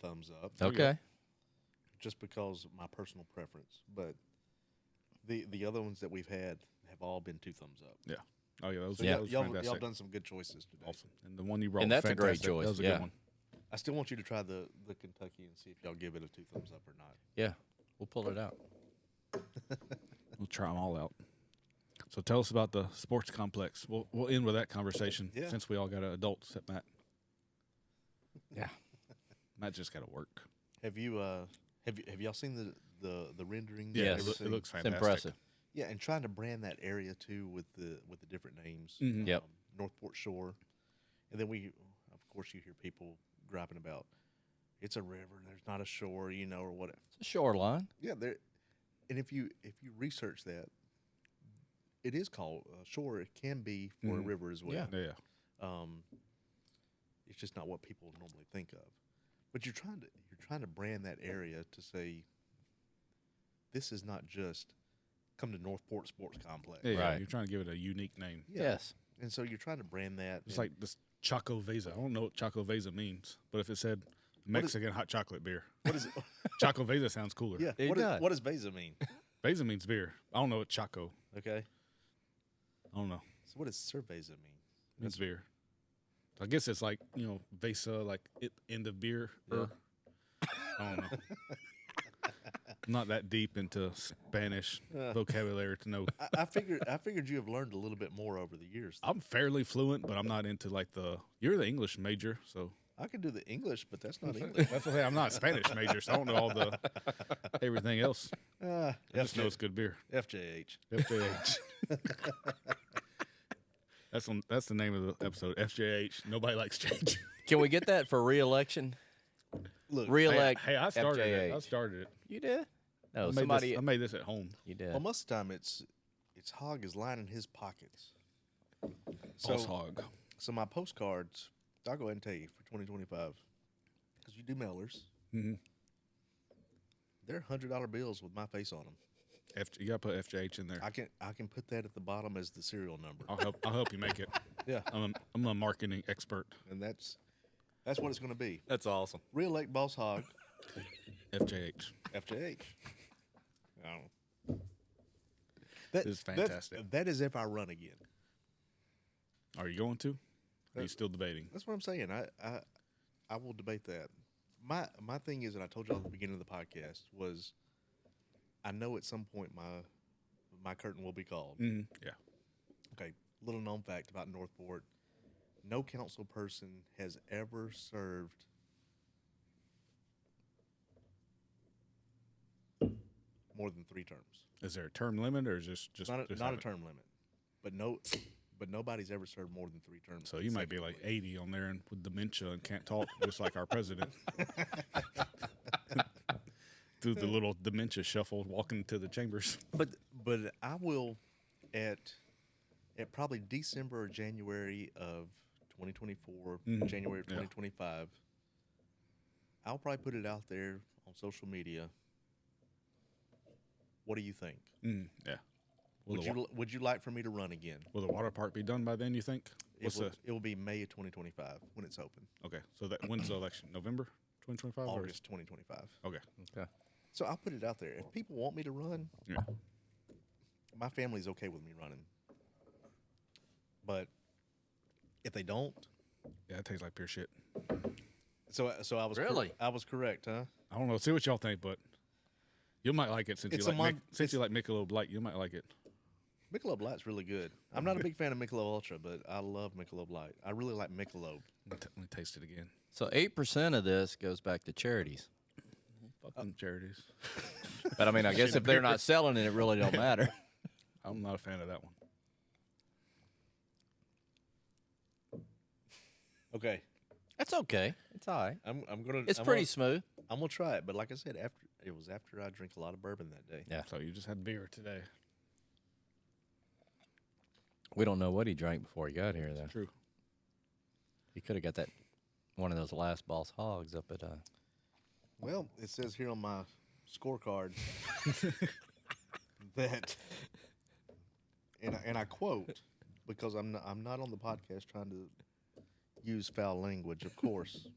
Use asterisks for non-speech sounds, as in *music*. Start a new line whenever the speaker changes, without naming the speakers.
thumbs up.
Okay.
Just because of my personal preference, but the the other ones that we've had have all been two thumbs up.
Yeah. Oh yeah, that was,
So
yeah.
y'all,
was
y'all, y'all
fantastic.
done some good choices today.
awesome. And the one you brought,
And
was
that's a great
fantastic.
choice,
That was a
yeah.
good one.
I still want you to try the the Kentucky and see if y'all give it a two thumbs up or not.
Yeah. We'll pull it out.
We'll try them all out. So tell us about the sports complex. We'll we'll end with that conversation
Yeah.
since we all got an adult except Matt.
Yeah.
Matt just got to work.
Have you uh have you, have y'all seen the the the renderings?
Yeah,
and
Yes.
it, loo-
everything?
it looks
It's
fantastic.
impressive.
Yeah, and trying to brand that area too with the with the different names. Um,
Mhm.
Yep.
Northport Shore, and then we, of course, you hear people griping about it's a river and there's not a shore, you know, or whatever.
It's a shoreline.
Yeah, there. And if you if you research that, it is called a shore. It can be for a
Mhm.
river as well.
Yeah.
Yeah.
Um, it's just not what people normally think of. But you're trying to you're trying to brand that area to say this is not just come to Northport Sports Complex.
Yeah, yeah,
Right.
You're trying to give it a unique name.
Yes.
And so you're trying to brand that. and-
It's like this Choco Vesa. I don't know what Choco Vesa means, but if it said Mexican hot chocolate beer,
what
*laughs*
is it?
Choco Vesa sounds cooler.
*laughs* yeah.
It
What, is,
does.
what does Beza mean?
Vesa means beer. I don't know what Choco.
Okay.
I don't know.
So what does Cerveza mean?
It's beer. I guess it's like you know Vesa, like it in the beer. er. I don't know. I'm not that deep into Spanish
Uh.
vocabulary to know.
I, I figured I figured you have learned a little bit more over the years.
I'm fairly fluent, but I'm not into like the. You're the English major, so
I can do the English, but that's
*laughs*
not English.
that's what I, I'm not a Spanish major, so I don't know all the everything else.
Ah,
I just know
FJ
it's good beer.
FJH.
FJH. *laughs* that's on, that's the name of the episode. FJH. Nobody likes change.
Can we get that for reelection?
Look,
Reelect.
hey, I started it. I
FJH.
started it.
You did? No,
I made,
somebody.
this, I made this at home.
you did.
Well, most of the time it's it's hog is lining his pockets. So
Boss hog.
so my postcards, I'll go ahead and tell you for 2025, because you do mailers.
Mhm.
They're hundred dollar bills with my face on them.
F, you gotta put FJH in there.
I can I can put that at the bottom as the serial number.
I'll help. I'll help you make it.
*laughs* Yeah,
I'm a, I'm a marketing expert.
and that's that's what it's going to be.
That's awesome.
Reelect Boss Hog,
FJH.
*laughs* FJH. Oh. That
This is
that's-
fantastic.
that is if I run again.
Are you going to? Are you still debating?
That's what I'm saying. I, I I will debate that. My my thing is, and I told y'all at the beginning of the podcast was, I know at some point my my curtain will be called.
Mm-hmm. Yeah.
Okay, little known fact about Northport: no council person has ever served. More than three terms.
Is there a term limit or is this just
not a,
just
not a
haven't-
term limit, but no, but nobody's ever served more than three terms.
So you might be like 80 on there and with dementia and can't talk, just like
*laughs*
our president. *laughs* Through the little dementia shuffle, walking to the chambers.
But but I will at at probably December or January of 2024,
Mhm.
January of
Yeah.
2025. I'll probably put it out there on social media. What do you think?
Mm, yeah. Will
Would
the,
you
wa-
li- would you like for me to run again?
will the water park be done by then? You think?
It
What's
will,
the
it will be May of 2025 when it's open.
okay? So that when's the election? November 2025. or is-
August Mm-hmm. 2025.
Okay.
Okay.
So I'll put it out there. If people want me to run,
Yeah.
my family's okay with me running. But if they don't,
Yeah, that tastes like pure shit.
so so I was cor-
Really?
I was correct, huh?
I don't know. See what y'all think, but you might like it since
It's a
you like
mon-
Mic- since you like Michelob Light. You might like it.
Michelob Light's really good. I'm *laughs* not a big fan of Michelob Ultra, but I love Michelob Light. I really like Michelob.
Let me, t- let me taste it again.
So eight percent of this goes back to charities.
Uh,
Fucking charities.
But I mean, I guess if they're not selling it, it really don't matter.
I'm not a fan of that one.
Okay,
That's okay. It's all right.
I'm I'm gonna.
It's
I'm
pretty
Gonna,
smooth.
I'm gonna try it, but like I said, after it was after I drank a lot of bourbon that day.
Yeah.
So you just had beer today.
We don't know what he drank before he got here, though.
True.
He could have got that one of those last boss hogs up at uh,
Well, it says here on my scorecard that, and I, and I quote because I'm not, I'm not on the podcast trying to use foul language, of course.